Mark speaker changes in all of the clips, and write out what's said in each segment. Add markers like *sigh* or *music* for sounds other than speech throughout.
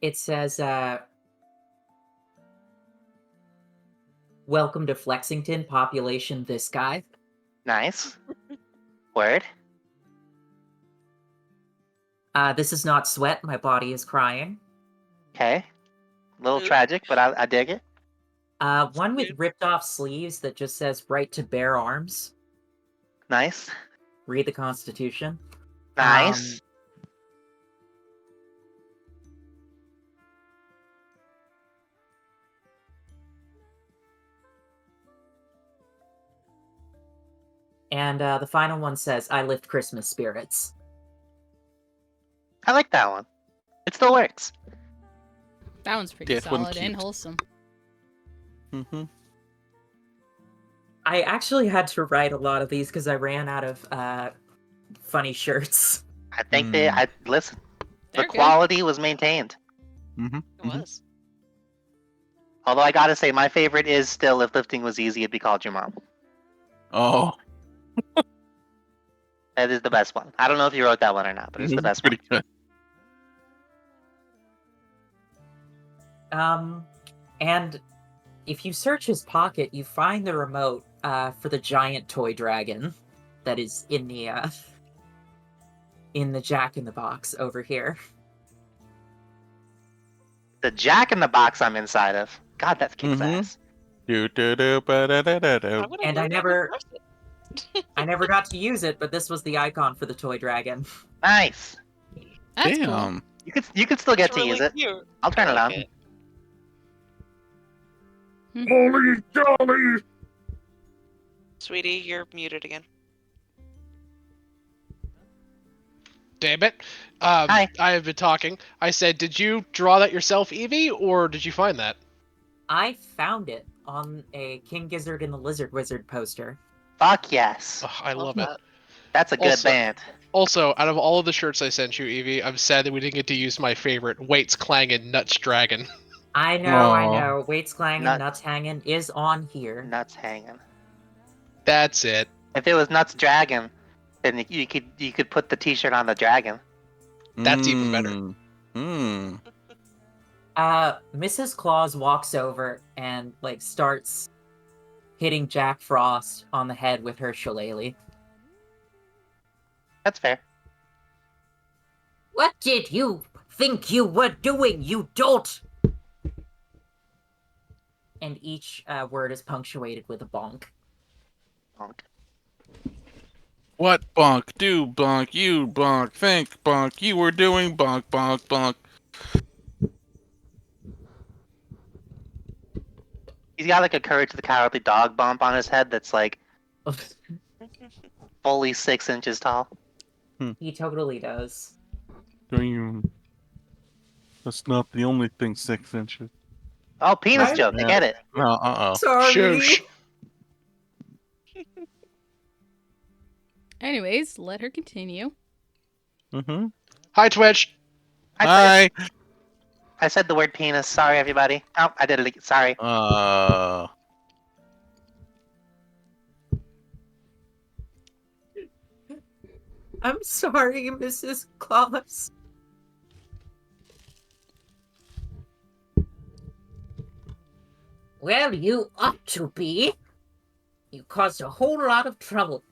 Speaker 1: It says, uh, "Welcome to Flexington, population this guy."
Speaker 2: Nice. Word.
Speaker 1: Uh, this is not sweat. My body is crying.
Speaker 2: Okay. A little
Speaker 3: Ooh.
Speaker 2: tragic, but I, I dig it.
Speaker 1: Uh, one with
Speaker 3: Dude.
Speaker 1: ripped off sleeves that just says "Right to bear arms."
Speaker 2: Nice.
Speaker 1: Read the Constitution.
Speaker 2: Nice.
Speaker 1: Um, And uh, the final one says, "I lift Christmas spirits."
Speaker 2: I like that one. It still works.
Speaker 4: That one's pretty
Speaker 5: That one
Speaker 4: solid and
Speaker 5: cute.
Speaker 4: wholesome.
Speaker 5: Mm-hmm.
Speaker 1: I actually had to write a lot of these because I ran out of uh, funny shirts.
Speaker 2: I think they.
Speaker 5: Mm.
Speaker 2: I listen.
Speaker 3: They're
Speaker 2: the
Speaker 3: good.
Speaker 2: quality was maintained.
Speaker 5: Mm-hmm.
Speaker 3: It was.
Speaker 2: Although I gotta say, my favorite is still if lifting was easy, it'd be called your mom.
Speaker 5: Oh, *laughs*
Speaker 2: That is the best one. I don't know if you wrote that one or not, but it's the
Speaker 5: that's
Speaker 2: best one.
Speaker 5: pretty good.
Speaker 1: Um, and if you search his pocket, you find the remote uh, for the giant toy dragon that is in the uh, in the Jack in the Box over here.
Speaker 2: The Jack in the Box I'm inside of. God, that kicks
Speaker 5: Mhm.
Speaker 2: ass.
Speaker 5: Do, do, do, ba, da, da, da,
Speaker 3: I
Speaker 5: do.
Speaker 3: would've
Speaker 1: And I
Speaker 3: loved it
Speaker 1: never-
Speaker 3: in person.
Speaker 1: I never got to use it, but this was the icon for the toy dragon.
Speaker 2: Nice.
Speaker 4: That's cool.
Speaker 5: Damn.
Speaker 2: You could you could still get
Speaker 3: It's
Speaker 2: to
Speaker 3: really
Speaker 2: use it.
Speaker 3: cute.
Speaker 2: I'll turn
Speaker 3: I
Speaker 2: it on.
Speaker 3: like it.
Speaker 5: Holy jolly!
Speaker 3: Sweetie, you're muted again.
Speaker 6: Damn it. Um,
Speaker 2: Hi.
Speaker 6: I have been talking. I said, did you draw that yourself, Evie, or did you find that?
Speaker 1: I found it on a King Gizzard and the Lizard Wizard poster.
Speaker 2: Fuck yes.
Speaker 6: Ugh, I love it.
Speaker 3: that.
Speaker 2: That's a good
Speaker 6: Also-
Speaker 2: band.
Speaker 6: Also, out of all of the shirts I sent you, Evie, I'm sad that we didn't get to use my favorite, Waits Clangin' Nuts Dragon.
Speaker 1: I know, I
Speaker 5: Aw.
Speaker 1: know. Weights clanging,
Speaker 2: Nut-
Speaker 1: nuts hanging is on here.
Speaker 2: Nuts hanging.
Speaker 6: That's it.
Speaker 2: If it was Nuts Dragon, then you- you could you could put the T-shirt on the dragon.
Speaker 6: That's even better.
Speaker 5: Mm. Mm.
Speaker 1: Uh, Mrs. Claus walks over and like starts hitting Jack Frost on the head with her shillelagh.
Speaker 2: That's fair.
Speaker 1: What did you think you were doing, you dolt? And each uh, word is punctuated with a bonk. *laughs*
Speaker 2: Bonk.
Speaker 5: What bonk? Do bonk? You bonk? Think bonk? You were doing bonk, bonk, bonk.
Speaker 2: He's got like a Courage the Cowardly Dog bump on his head that's like fully six inches tall.
Speaker 1: he totally does.
Speaker 5: Do you? That's not the only thing six inches.
Speaker 2: Oh, penis
Speaker 1: Right?
Speaker 2: joke. I get it.
Speaker 5: No, uh oh.
Speaker 1: Sorry.
Speaker 6: Shush.
Speaker 4: Anyways, let her continue.
Speaker 5: Mm-hmm.
Speaker 6: Hi, Twitch.
Speaker 2: I said,
Speaker 5: Hi.
Speaker 2: I said the word penis. Sorry, everybody. Oh, I did it. ag- Sorry.
Speaker 5: Uh.
Speaker 1: I'm sorry, Mrs. Claus. Well, you ought to be. You caused a whole lot of trouble.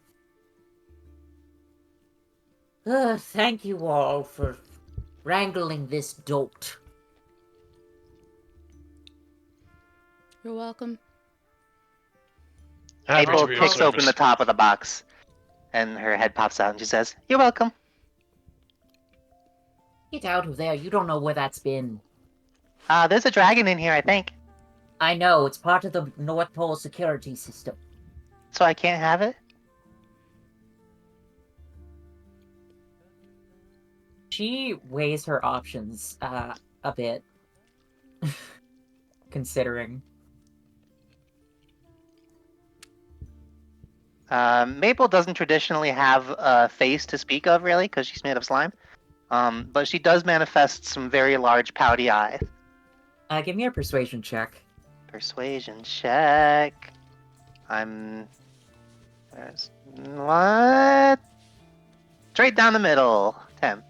Speaker 1: Uh, thank you all for wrangling this dolt.
Speaker 4: You're welcome.
Speaker 6: Ah,
Speaker 2: April
Speaker 6: Rotary
Speaker 2: kicks
Speaker 6: service.
Speaker 2: open the top of the box, and her head pops out, and she says, "You're welcome."
Speaker 1: Get out of there. You don't know where that's been.
Speaker 2: Uh, there's a dragon in here, I think.
Speaker 1: I know, it's part of the North Pole security system.
Speaker 2: So I can't have it.
Speaker 1: she weighs her options uh, a bit, *laughs* considering.
Speaker 2: Um, Maple doesn't traditionally have a face to speak of, really, because she's made of slime. Um, but she does manifest some very large pouty eyes.
Speaker 1: Uh, give me a persuasion check.
Speaker 2: Persuasion check. I'm. There's... What? Straight down the middle. Ten.